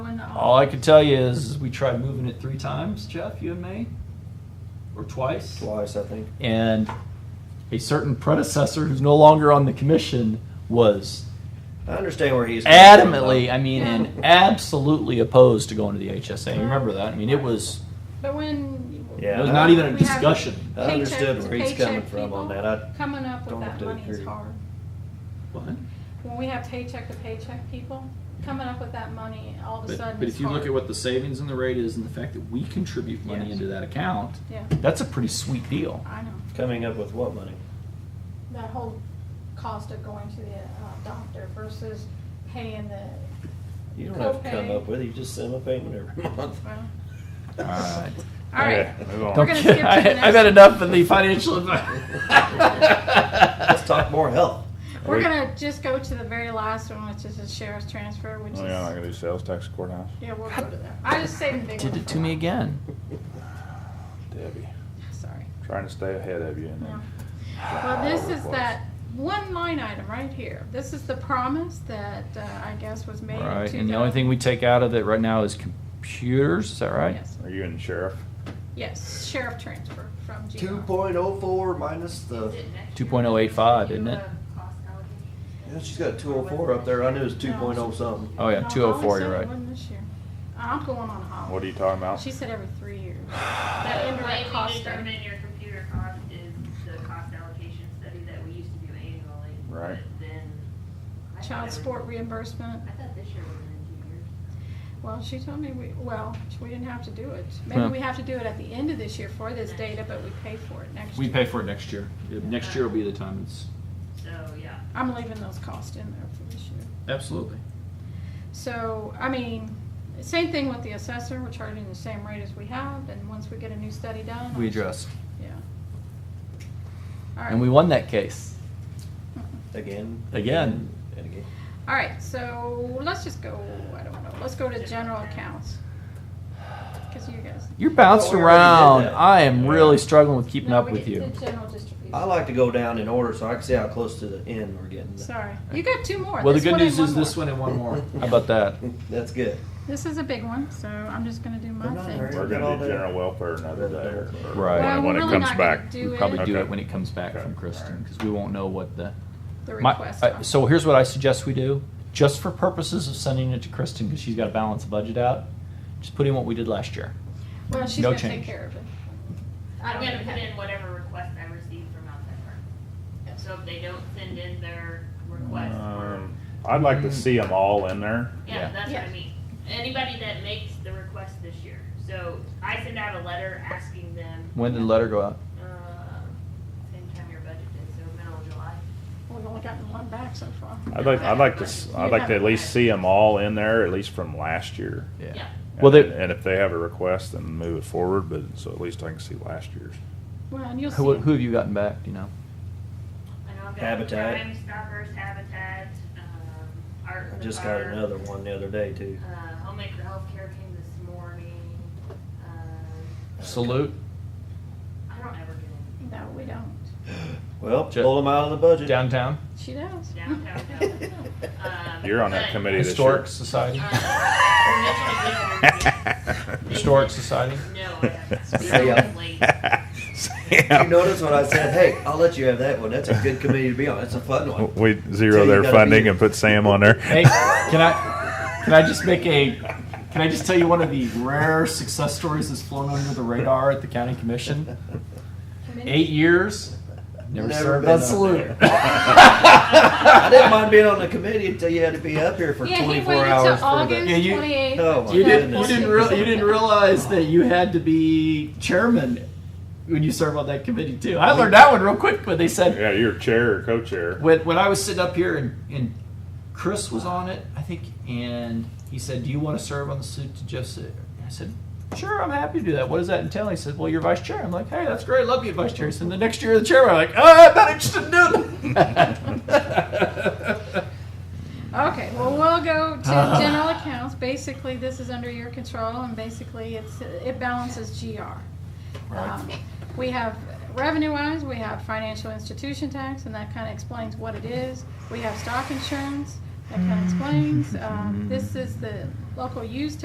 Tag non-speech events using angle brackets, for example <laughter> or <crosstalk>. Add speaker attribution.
Speaker 1: uh,
Speaker 2: All I can tell you is we tried moving it three times, Jeff, you and me, or twice.
Speaker 3: Twice, I think.
Speaker 2: And a certain predecessor who's no longer on the commission was
Speaker 3: I understand where he's coming from, though.
Speaker 2: adamantly, I mean, and absolutely opposed to going to the HSA. You remember that? I mean, it was
Speaker 1: But when.
Speaker 2: it
Speaker 3: Yeah.
Speaker 2: was not even a
Speaker 1: We have-
Speaker 2: discussion.
Speaker 3: I understood
Speaker 1: paycheck
Speaker 3: where he's
Speaker 1: to
Speaker 3: coming
Speaker 1: paycheck
Speaker 3: from
Speaker 1: people,
Speaker 3: on that. I
Speaker 1: Coming up with
Speaker 3: don't have
Speaker 1: that
Speaker 3: to
Speaker 1: money is
Speaker 3: agree.
Speaker 1: hard.
Speaker 2: What?
Speaker 1: When we have paycheck to paycheck people, coming up with that money all of a
Speaker 2: But,
Speaker 1: sudden
Speaker 2: but
Speaker 1: is
Speaker 2: if you look
Speaker 1: hard.
Speaker 2: at what the savings and the rate is, and the fact that we contribute money
Speaker 1: Yes.
Speaker 2: into that account,
Speaker 1: Yeah,
Speaker 2: that's a pretty sweet deal.
Speaker 1: I know.
Speaker 3: coming up with what money?
Speaker 1: That whole cost of going to the uh, doctor versus paying the,
Speaker 3: You don't have to come
Speaker 1: Copay.
Speaker 3: up with it. You just send them a payment every <laughs> month.
Speaker 1: well,
Speaker 2: All right.
Speaker 1: all right.
Speaker 4: Okay, move on.
Speaker 1: We're gonna skip to the
Speaker 2: I,
Speaker 1: next
Speaker 2: have had
Speaker 1: one.
Speaker 2: enough in the financial advice.
Speaker 3: <laughs>
Speaker 2: <laughs>
Speaker 3: Let's talk more health.
Speaker 1: We're
Speaker 4: Wait.
Speaker 1: gonna just go to the very last one, which is the sheriff's transfer, which
Speaker 4: Oh, yeah, I
Speaker 1: is,
Speaker 4: gotta do sales tax courthouse.
Speaker 1: yeah, we'll go to that. I just saved the big one
Speaker 2: Did it
Speaker 1: for
Speaker 2: to me
Speaker 1: last.
Speaker 2: again.
Speaker 4: Debbie,
Speaker 1: Sorry.
Speaker 4: trying to stay ahead of you and
Speaker 1: No.
Speaker 4: then.
Speaker 1: Well, this is that one line item right here. This is the promise that, uh, I guess was made in
Speaker 2: Right, and the only
Speaker 1: 2000
Speaker 2: thing we take out of it right now is computers, is that right?
Speaker 1: Yes.
Speaker 4: Are you and sheriff?
Speaker 1: Yes, sheriff transfer from GR.
Speaker 3: Two point oh four minus the.
Speaker 2: Two point oh eight five, isn't it?
Speaker 3: Yeah, she's got two oh four up there. I knew it was two point oh something.
Speaker 2: Oh, yeah,
Speaker 1: No, I
Speaker 2: two oh four,
Speaker 1: said
Speaker 2: you're
Speaker 1: it
Speaker 2: right.
Speaker 1: wasn't Uh-huh, this year. I'm going on a holiday.
Speaker 4: What are you talking about?
Speaker 1: She said every three years.
Speaker 4: <sighs>
Speaker 1: That
Speaker 5: The way
Speaker 1: indirect
Speaker 5: we
Speaker 1: cost. of-
Speaker 5: determine your computer cost is the cost allocation study that we used to do annually.
Speaker 4: Right.
Speaker 5: but Then. I thought it
Speaker 1: Child
Speaker 5: was-
Speaker 1: support reimbursement.
Speaker 5: I thought this year was in two years.
Speaker 1: Well, she told me we, well, we didn't have to do it.
Speaker 2: Yeah.
Speaker 1: Maybe we have to do it at the end of this year for this data, but we pay for it next year.
Speaker 2: We pay for it next year. Next year will be the time it's.
Speaker 5: So, yeah.
Speaker 1: I'm leaving those costs in there for this year.
Speaker 2: Absolutely.
Speaker 1: So, I mean, same thing with the assessor, we're charging the same rate as we have, and once we get a new study done.
Speaker 2: We adjust.
Speaker 1: Yeah. All right.
Speaker 2: And we won that case.
Speaker 3: Again.
Speaker 2: Again.
Speaker 3: And again.
Speaker 1: All right, so let's just go, I don't know, let's go to general accounts. Cause you guys.
Speaker 2: You're bouncing
Speaker 3: Well, we
Speaker 2: around.
Speaker 3: already did that.
Speaker 2: I am really struggling with keeping
Speaker 1: No,
Speaker 2: up
Speaker 1: we
Speaker 2: with
Speaker 1: did
Speaker 2: you.
Speaker 1: the general distribution.
Speaker 5: Uh,
Speaker 3: I like to go down in order so I can see how close to the end we're getting.
Speaker 1: Sorry, you got two more.
Speaker 2: Well, the
Speaker 1: This
Speaker 2: good
Speaker 1: one and
Speaker 2: news is this
Speaker 1: more.
Speaker 2: one and one more. <laughs> How about that?
Speaker 3: <laughs> That's good.
Speaker 1: This is a big one, so I'm just gonna do my
Speaker 3: I'm not
Speaker 1: thing.
Speaker 3: hurrying.
Speaker 4: We're gonna do general welfare another day. or- or
Speaker 2: Right.
Speaker 1: Well,
Speaker 4: When
Speaker 1: we're
Speaker 4: it
Speaker 1: really
Speaker 4: comes
Speaker 1: not gonna
Speaker 4: back.
Speaker 1: Do
Speaker 2: We probably do
Speaker 4: Okay.
Speaker 2: it when it comes back
Speaker 4: Okay.
Speaker 2: from Kristen, because we won't know what the.
Speaker 1: The
Speaker 2: My-
Speaker 1: request.
Speaker 2: uh, So here's what I suggest we do, just for purposes of sending it to Kristen, because she's got to balance the budget out, just put in what we did last year.
Speaker 1: Well, she's
Speaker 2: no
Speaker 1: gonna take
Speaker 2: change.
Speaker 1: care of it. I
Speaker 5: I'm
Speaker 1: don't
Speaker 5: gonna
Speaker 1: even
Speaker 5: put
Speaker 1: have-
Speaker 5: in whatever request I receive from outside firm. So if they don't send in their request, or,
Speaker 4: Um, I'd like to see them all in there.
Speaker 2: yeah.
Speaker 5: yeah, that's what I
Speaker 1: Yeah.
Speaker 5: mean. Anybody that makes the request this year. So I send out a letter asking them,
Speaker 2: When did the letter go out?
Speaker 5: uh, same time your budget is, so middle of July.
Speaker 1: We've only gotten one back so far.
Speaker 4: I'd like, I'd like to, s- I'd like to at least see them all in there, at least from last year.
Speaker 5: Yeah.
Speaker 2: Well,
Speaker 4: And-
Speaker 2: they-
Speaker 4: And if they have a request, then move it forward, but, so at least I can see last year's.
Speaker 1: Well, and you'll see.
Speaker 2: Who,
Speaker 1: it.
Speaker 2: who have you gotten back, do you know?
Speaker 5: I know I've got
Speaker 3: Habitat.
Speaker 5: Crime Stoppers, Habitat, um, Art.
Speaker 3: I
Speaker 5: for
Speaker 3: just got
Speaker 5: Fire,
Speaker 3: another one the other day too.
Speaker 5: Uh, Homemaker Healthcare came this morning. Um,
Speaker 2: Salute,
Speaker 5: I don't ever get any.
Speaker 1: No, we don't.
Speaker 3: Well,
Speaker 2: Ju-
Speaker 3: pull them out of the
Speaker 2: <laughs>
Speaker 3: budget.
Speaker 2: downtown,
Speaker 1: She does.
Speaker 5: downtown.
Speaker 1: <laughs>
Speaker 5: Um,
Speaker 4: <laughs> You're on that
Speaker 5: but,
Speaker 4: committee this year.
Speaker 2: historic
Speaker 4: <laughs>
Speaker 2: society,
Speaker 5: um, No,
Speaker 2: historic society. uh, <laughs>
Speaker 5: I haven't.
Speaker 3: See ya.
Speaker 5: It's late.
Speaker 3: <laughs> You
Speaker 4: <laughs>
Speaker 3: notice when I said, "Hey, I'll let you have that one. That's a good committee to be on. That's a fun one."
Speaker 4: We
Speaker 3: So
Speaker 4: zero
Speaker 3: you
Speaker 4: their
Speaker 3: gotta
Speaker 4: funding
Speaker 3: be-
Speaker 4: and put Sam on there.
Speaker 2: Hey, can I, can I just make a, can I just tell you one of the rare success stories that's flown under the radar at the county
Speaker 3: <laughs>
Speaker 2: commission? Eight years, never served on
Speaker 3: been
Speaker 2: a-
Speaker 3: on there. <laughs> I didn't mind being on the committee until you had to be up here for
Speaker 1: Yeah, he
Speaker 3: twenty-four
Speaker 1: waited
Speaker 3: hours
Speaker 1: till
Speaker 3: for
Speaker 1: August
Speaker 3: the.
Speaker 2: Yeah, you-
Speaker 1: twenty-eighth.
Speaker 3: Oh,
Speaker 2: <laughs>
Speaker 3: my
Speaker 2: You didn't, you
Speaker 3: goodness.
Speaker 2: didn't, real, you didn't realize that you had to be chairman when you serve on that committee too. I learned that one real quick, but they said
Speaker 4: <laughs> Yeah, you're chair or co-chair.
Speaker 2: when, when I was sitting up here and, and Chris was on it, I think, and he said, "Do you want to serve on the suit to Jeff?" Sit-" I said, "Sure, I'm happy to do that." What does that entail? He said, "Well, you're vice chair." I'm like, "Hey, that's great. Love you, vice chair." He said, "The next year, you're the chairman." I'm like, "Oh, <laughs> I'm not interested in doing that."
Speaker 1: Okay, well, we'll go
Speaker 2: <laughs>
Speaker 1: to general accounts. Basically, this is under your control, and basically, it's, it balances GR. Um, We have revenue-wise, we have financial institution tax, and that kind of explains what it is.
Speaker 2: Mm-hmm. <laughs>
Speaker 1: We have stock insurance, that kind of explains. Um, This is the local use